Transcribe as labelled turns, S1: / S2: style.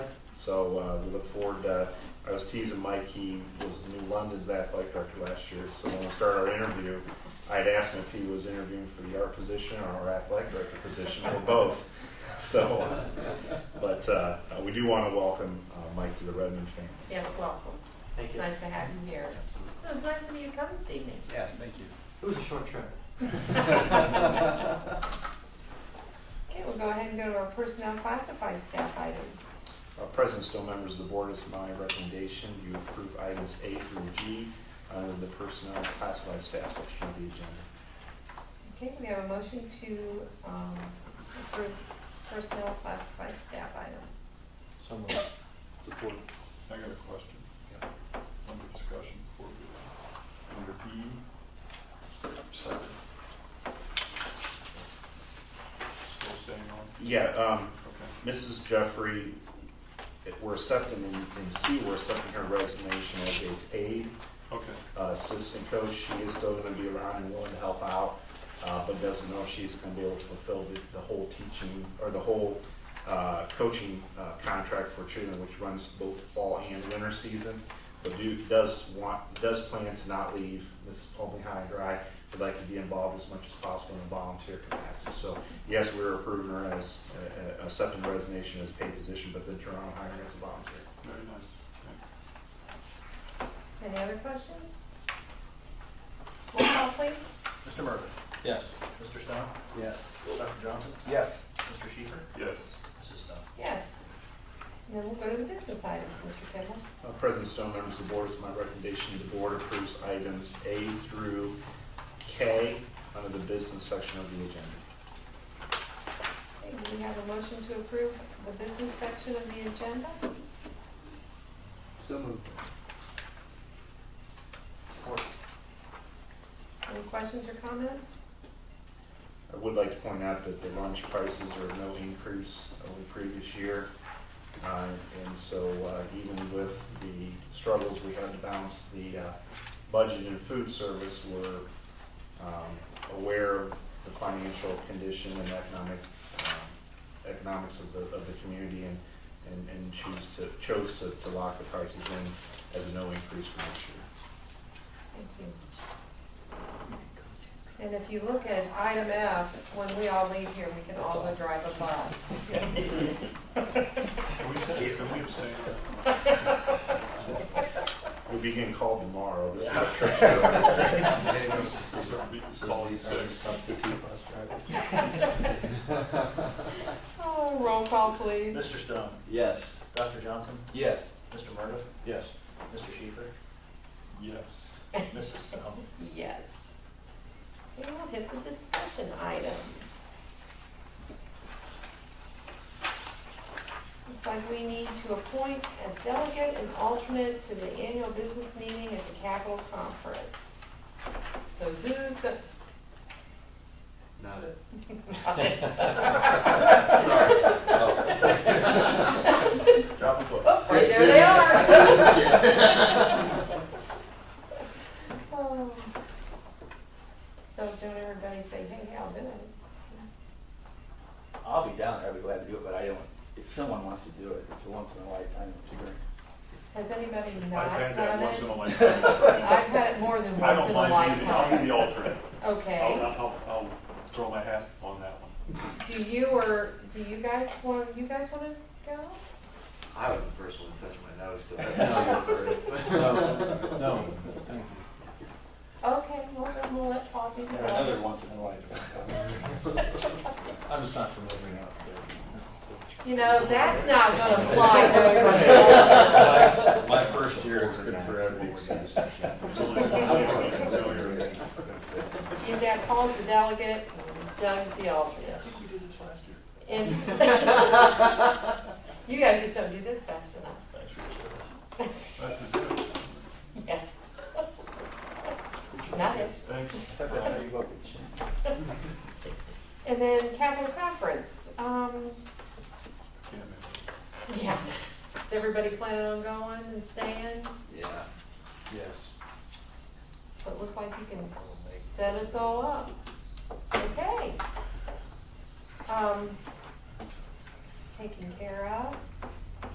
S1: So uh, we look forward, uh, I was teasing Mike, he was New London's athletic director last year, so when we started our interview, I had asked him if he was interviewing for the art position or our athletic director position, or both. So, uh, but uh, we do want to welcome uh, Mike to the Redmond family.
S2: Yes, welcome.
S3: Thank you.
S2: Nice to have you here.
S3: Absolutely.
S2: It was nice of you to come this evening.
S3: Yeah, thank you. It was a short trip.
S2: Okay, we'll go ahead and go to our personnel classified staff items.
S1: Uh, President Stowe, members of the board, it's my recommendation you approve items A through G under the personnel classified staff section of the agenda.
S2: Okay, we have a motion to um, approve personnel classified staff items.
S3: So moved.
S4: Support. I got a question. Under discussion before we, under B, second. Still staying on?
S1: Yeah, um,
S4: Okay.
S1: Mrs. Jeffrey, it- we're accepting, in in C, we're accepting her resignation as a aide
S4: Okay.
S1: uh, assistant coach. She is still going to be around and willing to help out, uh, but doesn't know if she's going to be able to fulfill the- the whole teaching, or the whole uh, coaching uh, contract for children, which runs both fall and winter season. But Duke does want, does plan to not leave Mrs. Pullman high and dry. Would like to be involved as much as possible in a volunteer capacity. So yes, we're approving her as, uh, uh, accepting resignation as a paid position, but then Toronto hiring as a volunteer.
S4: Very nice. Okay.
S2: Any other questions? Roll call, please.
S5: Mr. Murphy?
S3: Yes.
S5: Mr. Stone?
S3: Yes.
S5: Dr. Johnson?
S3: Yes.
S5: Mr. Schieffer?
S4: Yes.
S5: Mrs. Stone?
S2: Yes. And then we'll go to the business items, Mr. Kimball.
S1: Uh, President Stone, members of the board, it's my recommendation the board approves items A through K under the business section of the agenda.
S2: Okay, do we have a motion to approve the business section of the agenda?
S3: So moved.
S5: Support.
S2: Any questions or comments?
S1: I would like to point out that the lunch prices are no increase over the previous year. Uh, And so uh, even with the struggles we have to balance the uh, budget and food service, we're um, aware of the financial condition and economic, um, economics of the, of the community and, and- and choose to, chose to to lock the prices in as a no increase for next year.
S2: Thank you. And if you look at item F, when we all leave here, we can all go drive a bus.
S4: Can we abstain- can we abstain?
S1: We'll be getting called tomorrow. This is a trick.
S4: So we can Call you six.
S2: Oh, roll call, please.
S5: Mr. Stone?
S3: Yes.
S5: Dr. Johnson?
S3: Yes.
S5: Mr. Murphy?
S3: Yes.
S5: Mr. Schieffer?
S4: Yes.
S5: Mrs. Stone?
S2: Yes. And we'll hit the discussion items. Looks like we need to appoint a delegate and alternate to the annual business meeting at the Capitol Conference. So who's the,
S3: Not it.
S2: Sorry.
S5: Drop the book.
S2: Oh, right there they are. Oh. So don't everybody say, hey, I'll do it.
S6: I'll be down there, I'll be glad to do it, but I don't, if someone wants to do it, it's a once in a lifetime, it's a great.
S2: Has anybody
S4: I've
S2: not
S4: had that
S2: done
S4: once in a
S2: it?
S4: lifetime.
S2: I've had it more than
S4: I
S2: once
S4: don't
S2: in a
S4: mind being, I'll be the Oh,
S2: lifetime.
S4: alternate. I'll,
S2: Okay,
S4: I'll, I'll throw my hat on that one.
S2: do you or, do you guys want, you guys wanna go?
S7: I was the first one to touch my nose, so that's not your
S3: No, no, thank you.
S2: Okay, well, then we'll let Paul be the
S6: There's another
S2: one.
S6: once in a lifetime.
S3: I'm just not familiar enough.
S2: You know, that's not gonna fly very well.
S3: My my first year, it's good for everyone.
S2: You've got Paul's the delegate, and Doug's the alternate.
S4: I think we did this last year.
S2: And you guys just don't do this fast enough.
S4: Thanks for your service. That is it.
S2: Yeah. Not it.
S4: Thanks.
S6: That's how you look at shit.
S2: And then Capitol Conference, um,
S4: Yeah, man.
S2: yeah. Is everybody planning on going and staying?
S7: Yeah.
S3: Yes.
S2: So it looks like you can set us all up. Okay. Um, taken care of.